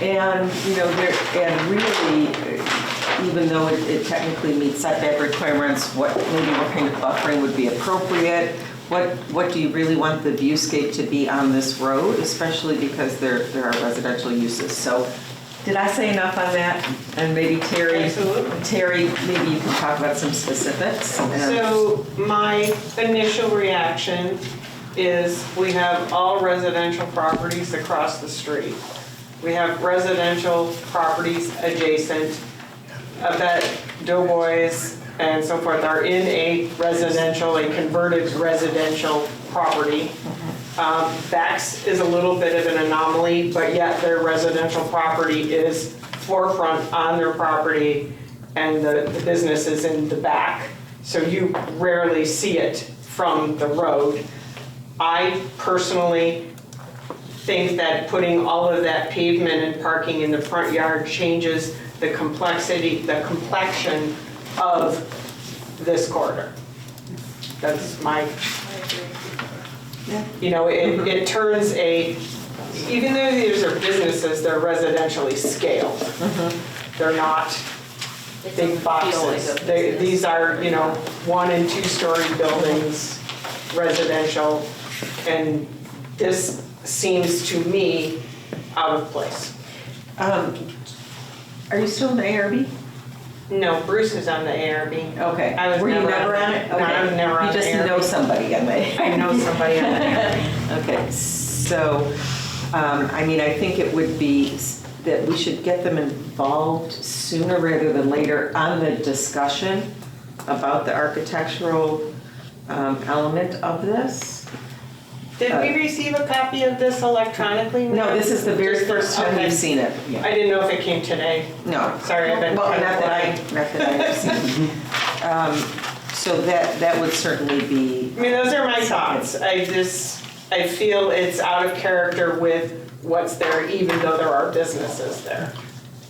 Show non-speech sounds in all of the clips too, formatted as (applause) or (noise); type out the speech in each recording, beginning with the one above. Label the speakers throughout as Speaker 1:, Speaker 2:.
Speaker 1: And, you know, there, and really, even though it- it technically meets setback requirements, what, maybe what kind of buffering would be appropriate? What, what do you really want the viewscape to be on this road, especially because there, there are residential uses? So, did I say enough on that? And maybe Terry,
Speaker 2: Absolutely.
Speaker 1: Terry, maybe you can talk about some specifics. and-
Speaker 2: So my initial reaction is we have all residential properties across the street. We have residential properties adjacent. I bet Doughboys and so forth are in a residential, a converted residential property. Um, Bex is a little bit of an anomaly, but yet their residential property is forefront on their property and the the business is in the back. So you rarely see it from the road. I personally think that putting all of that pavement and parking in the front yard changes the complexity, the complexion of this corridor. That's my you know, it, it turns a, even though these are businesses, they're residentially scaled. They're not big boxes. They, these are, you know, one and two-story buildings, residential, and this seems to me out of place.
Speaker 1: Are you still in the ARB?
Speaker 2: No, Bruce is on the ARB.
Speaker 1: Okay.
Speaker 2: I was
Speaker 1: Were you
Speaker 2: never on it.
Speaker 1: it?
Speaker 2: No, I was
Speaker 1: Okay.
Speaker 2: never on the
Speaker 1: You just
Speaker 2: ARB.
Speaker 1: know somebody, I may.
Speaker 2: I know somebody on the ARB.
Speaker 1: (laughs) Okay, so, um, I mean, I think it would be s- that we should get them involved sooner rather than later on the discussion about the architectural um, element of this.
Speaker 2: Did we receive a copy of this electronically?
Speaker 1: No, this is the very
Speaker 2: Just
Speaker 1: first time
Speaker 2: okay.
Speaker 1: we've seen it.
Speaker 2: I didn't know if it came today.
Speaker 1: No.
Speaker 2: Sorry, I've been
Speaker 1: Well,
Speaker 2: kind of
Speaker 1: not that I,
Speaker 2: blind.
Speaker 1: not that I've
Speaker 2: (laughs)
Speaker 1: seen. Um, So that, that would certainly be,
Speaker 2: I mean, those are my thoughts. I just, I feel it's out of character with what's there, even though there are businesses there.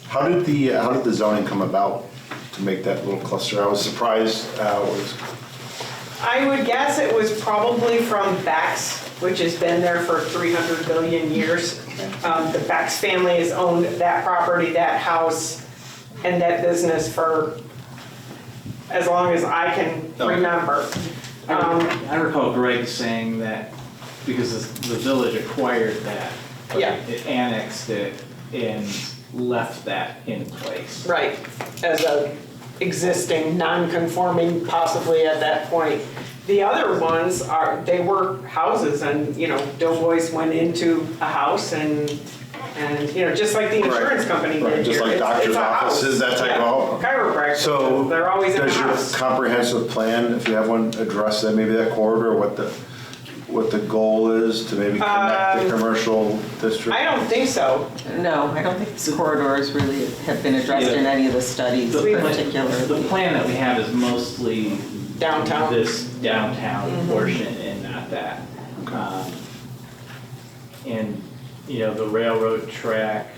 Speaker 3: How did the, uh, how did the zoning come about to make that little cluster? I was surprised, uh, was,
Speaker 2: I would guess it was probably from Bex, which has been there for 300 billion years. Um, The Bex family has owned that property, that house, and that business for as long as I can
Speaker 3: Oh.
Speaker 2: remember. Um,
Speaker 4: I recall Greg saying that because the village acquired that. but
Speaker 2: Yeah.
Speaker 4: It annexed it and left that in place.
Speaker 2: Right, as a existing, non-conforming possibly at that point. The other ones are, they were houses and, you know, Doughboys went into a house and, and, you know, just like the insurance company
Speaker 3: Right,
Speaker 2: did
Speaker 3: just
Speaker 2: here.
Speaker 3: like
Speaker 2: It's- it's
Speaker 3: doctor's
Speaker 2: a house.
Speaker 3: offices, that type of home.
Speaker 2: Yeah, Chiropractors,
Speaker 3: so.
Speaker 2: they're always in a
Speaker 3: Does
Speaker 2: house.
Speaker 3: your comprehensive plan, if you have one, address that, maybe that corridor, what the, what the goal is to maybe connect the commercial district?
Speaker 2: Um, I don't think so.
Speaker 1: no, I don't think these corridors really have been addressed in
Speaker 4: Yeah.
Speaker 1: any of the studies
Speaker 4: The plan-
Speaker 1: particularly.
Speaker 4: The plan that we have is mostly.
Speaker 2: Downtown. Mm-hmm.
Speaker 4: This downtown portion and not that. Um, And, you know, the railroad track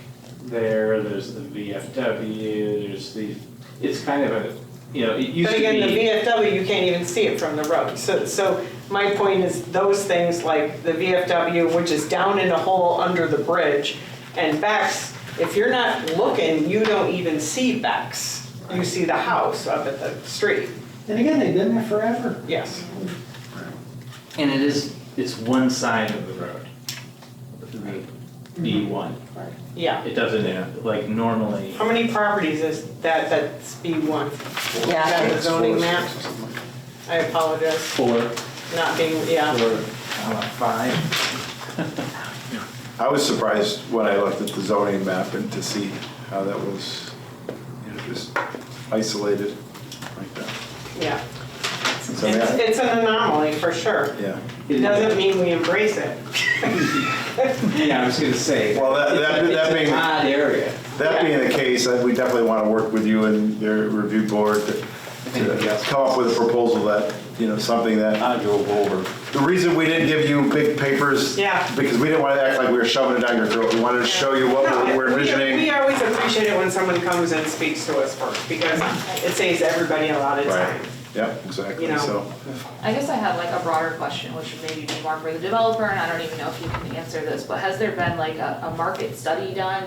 Speaker 4: there, there's the VFW, there's the, it's kind of a, you know, it used
Speaker 2: But
Speaker 4: to be.
Speaker 2: again, the VFW, you can't even see it from the road. So, so my point is those things like the VFW, which is down in a hole under the bridge, and Bex, if you're not looking, you don't even see Bex. You see the house up at the street,
Speaker 4: And again, they've been there forever.
Speaker 2: yes.
Speaker 4: And it is, it's one side of the road. The B1.
Speaker 2: Yeah.
Speaker 4: It doesn't, uh, like normally,
Speaker 2: How many properties is that, that's B1?
Speaker 1: Yeah.
Speaker 2: Is that the
Speaker 3: It's
Speaker 2: zoning
Speaker 3: four,
Speaker 2: map?
Speaker 3: six, or something like that.
Speaker 2: I apologize,
Speaker 4: four, four,
Speaker 2: not being, yeah.
Speaker 4: I don't know, five.
Speaker 3: I was surprised when I looked at the zoning map and to see how that was, you know, just isolated like that.
Speaker 2: Yeah.
Speaker 3: So,
Speaker 2: It's,
Speaker 3: yeah,
Speaker 2: it's an anomaly for sure.
Speaker 3: yeah.
Speaker 2: It doesn't mean we embrace it.
Speaker 4: Yeah, I was gonna say.
Speaker 3: Well, that- that-
Speaker 4: it's a-
Speaker 3: that
Speaker 4: It's
Speaker 3: being-
Speaker 4: an odd area.
Speaker 3: That being the case, I- we definitely want to work with you and your review board to to come up with a proposal that, you know, something that. I drove over. The reason we didn't give you big papers.
Speaker 2: Yeah.
Speaker 3: Because we didn't want to act like we were shoving it down your throat. We wanted to show you what
Speaker 2: No,
Speaker 3: we're- we're
Speaker 2: we-
Speaker 3: envisioning.
Speaker 2: We always appreciate it when someone comes and speaks to us first, because it saves everybody a lot of
Speaker 3: Right,
Speaker 2: time.
Speaker 3: yep, exactly,
Speaker 2: You know.
Speaker 3: so.
Speaker 5: I guess I have like a broader question, which would maybe be more for the developer, and I don't even know if you can answer this, but has there been like a, a market study done